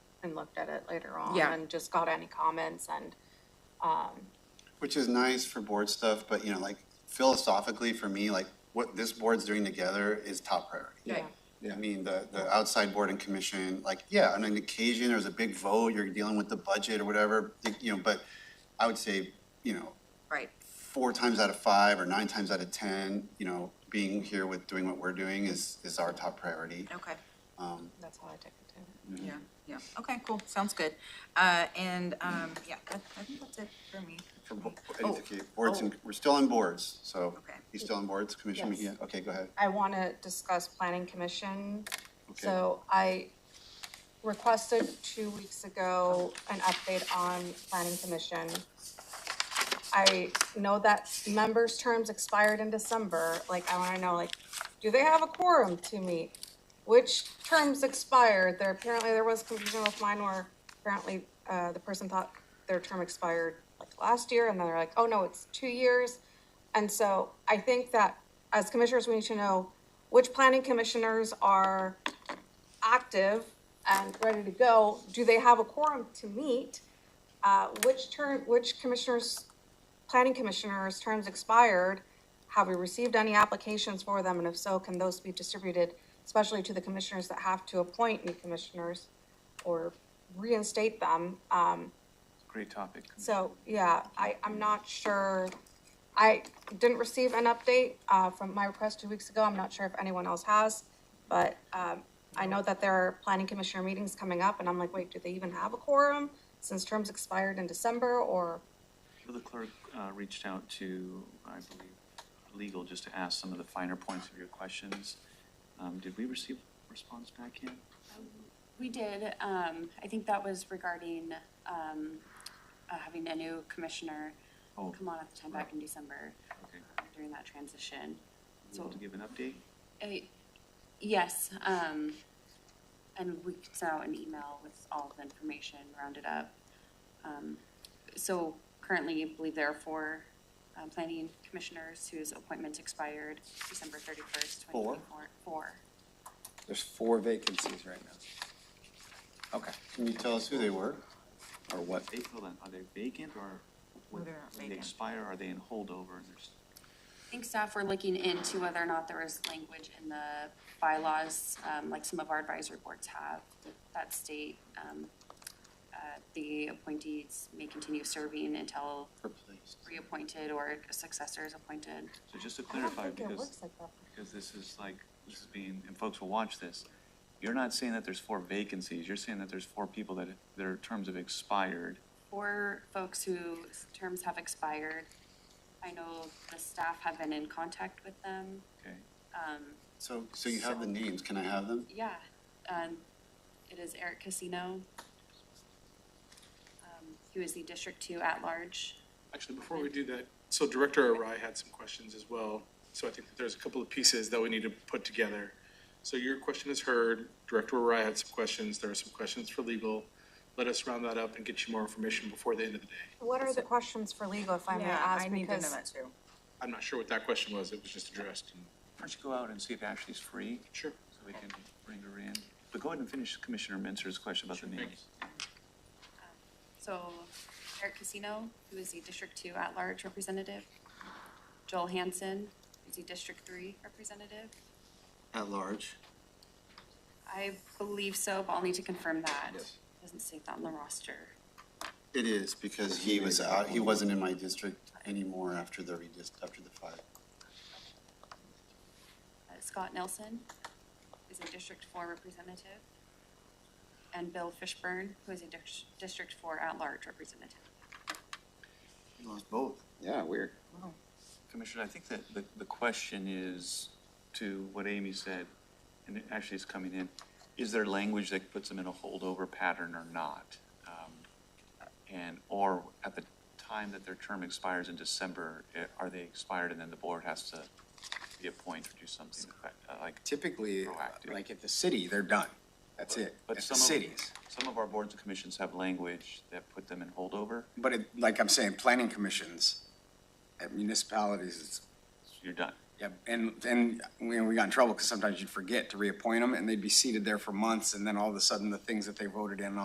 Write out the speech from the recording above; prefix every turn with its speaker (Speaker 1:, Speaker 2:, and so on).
Speaker 1: and looked at it later on
Speaker 2: Yeah.
Speaker 1: and just got any comments and,
Speaker 3: Which is nice for board stuff, but you know, like philosophically for me, like what this board's doing together is top priority.
Speaker 2: Right.
Speaker 3: I mean, the, the outside board and commission, like, yeah, on an occasion, there's a big vote, you're dealing with the budget or whatever, you know, but I would say, you know,
Speaker 2: Right.
Speaker 3: four times out of five or nine times out of ten, you know, being here with doing what we're doing is, is our top priority.
Speaker 2: Okay.
Speaker 1: that's how I took it too.
Speaker 2: Yeah, yeah. Okay, cool. Sounds good. Uh, and, um, yeah, I, I think that's it for me.
Speaker 3: For bo-
Speaker 2: Oh,
Speaker 3: okay, boards and, we're still on boards, so.
Speaker 2: Okay.
Speaker 3: You still on boards, commission,
Speaker 1: Yes.
Speaker 3: yeah, okay, go ahead.
Speaker 1: I want to discuss planning commission.
Speaker 3: Okay.
Speaker 1: So I requested two weeks ago an update on planning commission. I know that members' terms expired in December, like, I want to know, like, do they have a quorum to meet? Which terms expired? There, apparently there was confusion with mine where apparently, uh, the person thought their term expired like last year and then they're like, oh no, it's two years. And so I think that as commissioners, we need to know which planning commissioners are active and ready to go. Do they have a quorum to meet? Uh, which term, which commissioners, planning commissioners' terms expired? Have we received any applications for them? And if so, can those be distributed, especially to the commissioners that have to appoint new commissioners or reinstate them? Um,
Speaker 4: Great topic.
Speaker 1: So, yeah, I, I'm not sure, I didn't receive an update, uh, from my request two weeks ago, I'm not sure if anyone else has, but, um, I know that there are planning commissioner meetings coming up, and I'm like, wait, do they even have a quorum? Since terms expired in December, or,
Speaker 4: The clerk uh, reached out to, I believe, legal, just to ask some of the finer points of your questions. Um, Did we receive response back yet?
Speaker 5: We did, um, I think that was regarding, um, uh, having a new commissioner
Speaker 4: Oh.
Speaker 5: come on at the time back in December
Speaker 4: Okay,
Speaker 5: during that transition.
Speaker 4: so to give an update?
Speaker 5: I- Yes, um, and we could send out an email with all the information rounded up. Um, so currently, I believe there are four, um, planning commissioners whose appointments expired December thirty-first, twenty
Speaker 6: Four?
Speaker 5: twenty-four. Four.
Speaker 6: There's four vacancies right now. Okay.
Speaker 3: Can you tell us who they were?
Speaker 6: Or what?
Speaker 4: They fill that- are they vacant or
Speaker 2: No,
Speaker 4: when
Speaker 2: they're not
Speaker 4: when they
Speaker 2: vacant.
Speaker 4: expire, are they in holdover? and there's-
Speaker 5: I think staff were looking into whether or not there was language in the bylaws, um, like some of our advisory boards have, that state, um, uh, the appointees may continue serving until reappointed or a successor is appointed.
Speaker 4: So just to
Speaker 1: I don't
Speaker 4: clarify,
Speaker 1: think it
Speaker 4: because,
Speaker 1: works like that.
Speaker 4: because this is like, this is being, and folks will watch this. You're not saying that there's four vacancies, you're saying that there's four people that, their terms have expired.
Speaker 5: For folks whose terms have expired, I know the staff have been in contact with them. Um,
Speaker 4: Okay,
Speaker 3: So, so you have the names, can I have them?
Speaker 5: Yeah, um, it is Eric Casino. Um, He was the District Two at-large.
Speaker 7: Actually, before we do that, so Director Arai had some questions as well. So I think that there's a couple of pieces that we need to put together. So your question is heard. Director Arai had some questions. There are some questions for legal. Let us round that up and get you more information before the end of the day.
Speaker 1: What are the questions for legal, if I may
Speaker 2: Yeah,
Speaker 1: ask?
Speaker 2: I need to know
Speaker 1: Because
Speaker 2: that too.
Speaker 7: I'm not sure what that question was. It was just addressed.
Speaker 4: why don't you go out and see if Ashley's free?
Speaker 7: Sure.
Speaker 4: So we can bring her in. But go ahead and finish Commissioner Mentzer's question about the names.
Speaker 5: So Eric Casino, who is the District Two at-large representative. Joel Hansen, who's the District Three representative.
Speaker 3: At large.
Speaker 5: I believe so, but I'll need to confirm that. Doesn't state that on the roster.
Speaker 3: It is, because he was out, he wasn't in my district anymore after the redist, after the five.
Speaker 5: Uh, Scott Nelson is a District Four representative. And Bill Fishburne, who is a Dis- District Four at-large representative.
Speaker 3: He lost both.
Speaker 6: Yeah, weird.
Speaker 4: Commissioner, I think that the, the question is to what Amy said, and it actually is coming in, is there language that puts them in a holdover pattern or not? Um, And, or at the time that their term expires in December, eh, are they expired and then the board has to reappoint or do something uh, like?
Speaker 6: Typically,
Speaker 4: Proactive.
Speaker 6: like at the city, they're done. That's it. At
Speaker 4: But
Speaker 6: the
Speaker 4: some of-
Speaker 6: cities.
Speaker 4: Some of our boards and commissions have language that put them in holdover,
Speaker 6: But it, like I'm saying, planning commissions at municipalities, it's,
Speaker 4: so you're done.
Speaker 6: yeah, and, and we, we got in trouble because sometimes you'd forget to reappoint them and they'd be seated there for months and then all of a sudden the things that they voted in